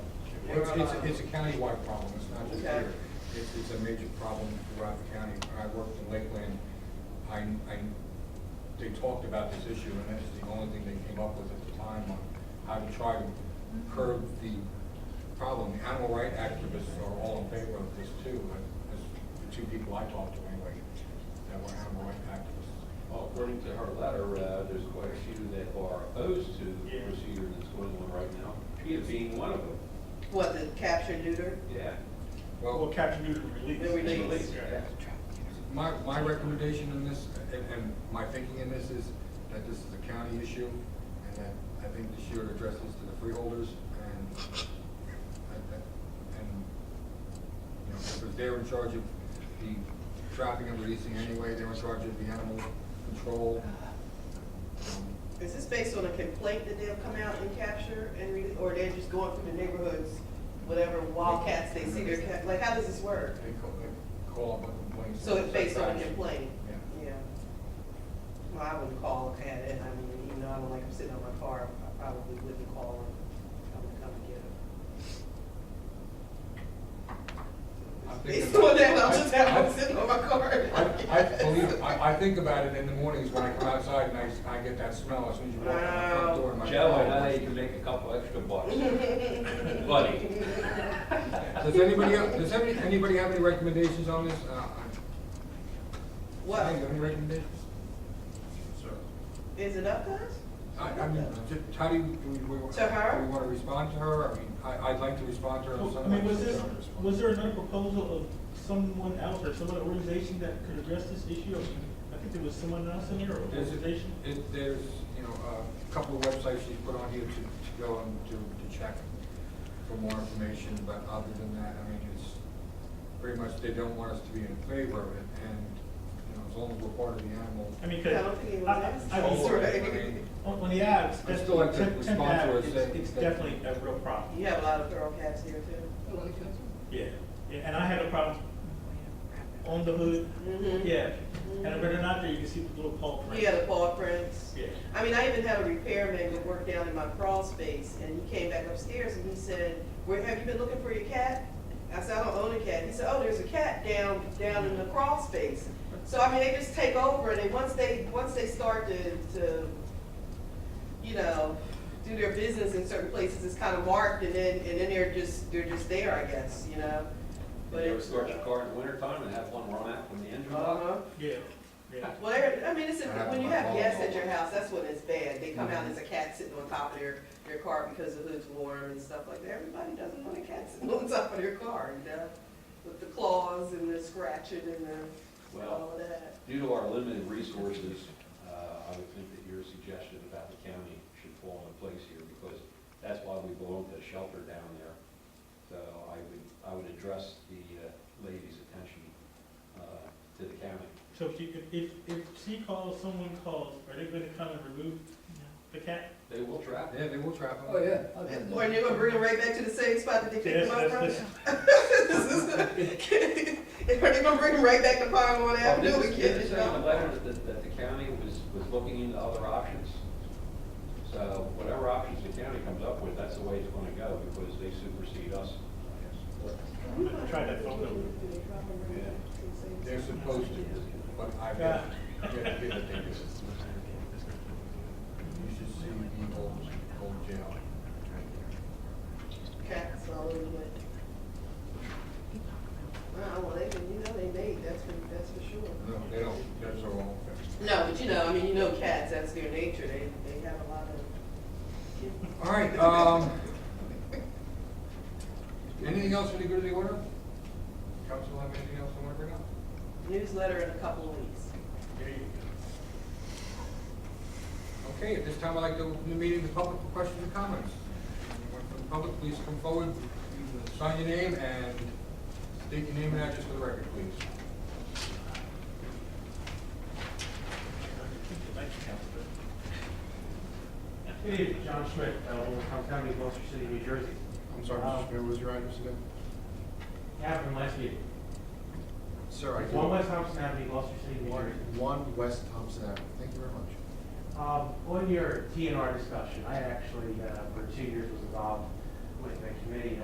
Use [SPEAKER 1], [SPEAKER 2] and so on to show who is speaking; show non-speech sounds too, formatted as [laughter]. [SPEAKER 1] It's, it's, it's a countywide problem, it's not just
[SPEAKER 2] Okay.
[SPEAKER 1] here. It's, it's a major problem throughout the county. When I worked in Lakeland, I, I, they talked about this issue, and that's the only thing they came up with at the time on how to try to curb the problem. The Animal rights activists are all in favor of this too, and that's the two people I talked to anyway, that were animal rights activists.
[SPEAKER 3] Well, according to her letter, uh, there's quite a few that are opposed to the
[SPEAKER 4] Yeah.
[SPEAKER 3] procedure that's going on right now, PETA being one of them.
[SPEAKER 2] What, the capture neuter?
[SPEAKER 3] Yeah.
[SPEAKER 4] Well, capture neuter release.
[SPEAKER 2] They're released.
[SPEAKER 3] Release,
[SPEAKER 4] Yeah.
[SPEAKER 1] My, my recommendation in this, and, and my thinking in this is that this is a county issue, and that I think this should address this to the freeholders, and, that- that- and, you know, because they're in charge of the trapping and releasing anyway, they're in charge of the animal control. Um,
[SPEAKER 2] Is this based on a complaint that they'll come out and capture and re, or they're just going through the neighborhoods, whatever wildcats they see, they're, ca- like, how does this work?
[SPEAKER 1] They call, they call up a complaint.
[SPEAKER 2] So it's based on a
[SPEAKER 1] Satisfaction.
[SPEAKER 2] complaint?
[SPEAKER 1] Yeah.
[SPEAKER 2] Yeah. Well, I wouldn't call and had it, I mean, even though I don't like them sitting on my car, I probably wouldn't call and come, come and get them.
[SPEAKER 1] I'm thinking
[SPEAKER 2] Based on that, I'll
[SPEAKER 1] about-
[SPEAKER 2] just
[SPEAKER 1] I-
[SPEAKER 2] have
[SPEAKER 1] I-
[SPEAKER 2] them sitting on my car.
[SPEAKER 1] I, I believe, I, I think about it in the mornings when I come outside and I, s- I get that smell as soon as you walk in the front door. my-
[SPEAKER 3] Joe, I know you can make a couple extra
[SPEAKER 4] [laughs]
[SPEAKER 3] bucks. Buddy.
[SPEAKER 1] Does anybody, el- does any, anybody have any recommendations on this? Uh, I-
[SPEAKER 2] What,
[SPEAKER 1] Any any recommendations? Sir.
[SPEAKER 2] is it up to us?
[SPEAKER 1] I, I mean, ju- how do you, do we, we.
[SPEAKER 2] To her?
[SPEAKER 1] Do we wanna respond to her? I mean, I, I'd like to respond to her. if
[SPEAKER 4] Well, I
[SPEAKER 1] somebody
[SPEAKER 4] mean, was
[SPEAKER 1] doesn't
[SPEAKER 4] this,
[SPEAKER 1] wanna respond.
[SPEAKER 4] was there another proposal of someone else or some other organization that could address this issue? I think there was someone else in here or
[SPEAKER 1] There's,
[SPEAKER 4] organization?
[SPEAKER 1] it, there's, you know, a couple of websites she's put on here to, to go and to, to check for more information, but other than that, I mean, it's pretty much, they don't want us to be in favor of it, and, you know, as long as we're part of the animal.
[SPEAKER 4] I mean,
[SPEAKER 2] I
[SPEAKER 4] could.
[SPEAKER 2] don't think it was asked.
[SPEAKER 4] I- I- I mean,
[SPEAKER 2] That's right.
[SPEAKER 1] [laughs]
[SPEAKER 4] On, on the ads,
[SPEAKER 1] I'd
[SPEAKER 4] that's,
[SPEAKER 1] still like to
[SPEAKER 4] temp, temp
[SPEAKER 1] respond to
[SPEAKER 4] ad,
[SPEAKER 1] it,
[SPEAKER 4] it's,
[SPEAKER 1] say-
[SPEAKER 4] it's definitely a real problem.
[SPEAKER 2] You have a lot of feral cats here too.
[SPEAKER 4] Yeah, Yeah, and I had a problem on the hood,
[SPEAKER 2] Mhm.
[SPEAKER 4] yeah, and if they're not there, you can see the little paw print.
[SPEAKER 2] He had a paw prints.
[SPEAKER 4] Yeah.
[SPEAKER 2] I mean, I even had a repairman that worked down in my crawl space, and he came back upstairs and he said, where, have you been looking for your cat? I said, I don't own a cat. He said, oh, there's a cat down, down in the crawl space. So, I mean, they just take over, and then once they, once they start to, to, you know, do their business in certain places, it's kind of marked, and then, and then they're just, they're just there, I guess, you know? But
[SPEAKER 3] But you ever
[SPEAKER 2] it's.
[SPEAKER 3] start your car in the wintertime and have one run out from the engine
[SPEAKER 2] Uh-huh.
[SPEAKER 3] block?
[SPEAKER 4] Yeah, yeah.
[SPEAKER 2] Well, there- I mean, it's, a- when you have guests at your house, that's when it's bad. They come out as a cat sitting on top of their, their car because the hood's warm and stuff like that. Everybody doesn't want a cat sitting [laughs] on top of their car, you know? With the claws and the scratching and the, all of that.
[SPEAKER 3] Due to our limited resources, uh, I would think that your suggestion about the county should fall in place here because that's why we belong to the shelter down there. So I would, I would address the uh, lady's attention uh, to the county.
[SPEAKER 4] So if you, if- if, if she calls, someone calls, are they gonna come and remove the cat?
[SPEAKER 3] They will trap
[SPEAKER 1] Yeah,
[SPEAKER 3] it.
[SPEAKER 1] they will trap them.
[SPEAKER 2] Or they're gonna bring them right back to the same spot that they
[SPEAKER 4] Yeah,
[SPEAKER 2] picked them up
[SPEAKER 4] that's- that's-
[SPEAKER 2] from? [laughs] Are they gonna bring them right back to Pyrone
[SPEAKER 3] Well,
[SPEAKER 2] Avenue
[SPEAKER 3] Oh, This
[SPEAKER 2] again,
[SPEAKER 3] is
[SPEAKER 2] you
[SPEAKER 3] the
[SPEAKER 2] know?
[SPEAKER 3] letter that, that the county was, was looking into other options. So whatever options the county comes up with, that's the way it's gonna go because they supersede us.
[SPEAKER 4] I'm gonna try that phone number.
[SPEAKER 1] They're supposed to, but I bet, I bet they think they do. You should see the old, old jail.
[SPEAKER 2] Cats all over the place. Uh, well, they, can- you know, they mate, that's for, that's for sure.
[SPEAKER 1] No, they don't, that's their own thing.
[SPEAKER 2] No, but you know, I mean, you know cats, that's their nature, they, they have a lot of.
[SPEAKER 1] All right, um, anything else for the good of the order? Council have anything else they want to bring up?
[SPEAKER 2] Newsletter in a couple of weeks.
[SPEAKER 4] There you go.
[SPEAKER 1] Okay, at this time, I'd like to open the meeting to public for questions and comments. Anyone from the public, please come forward, sign your name, and state your name and address for the record, please.
[SPEAKER 5] Good evening, John Schmidt, uh, Wolverhampton County, Gloucester City, New Jersey.
[SPEAKER 6] I'm sorry, Mr. Smith, what was your address again?
[SPEAKER 5] Happened last week.
[SPEAKER 6] Sir, I
[SPEAKER 5] One
[SPEAKER 6] can.
[SPEAKER 5] West Thompson Avenue, Gloucester City, New Jersey.
[SPEAKER 6] One West Thompson Avenue, thank you very much.
[SPEAKER 5] Um, On your TNR discussion, I actually, uh, for two years was involved with a committee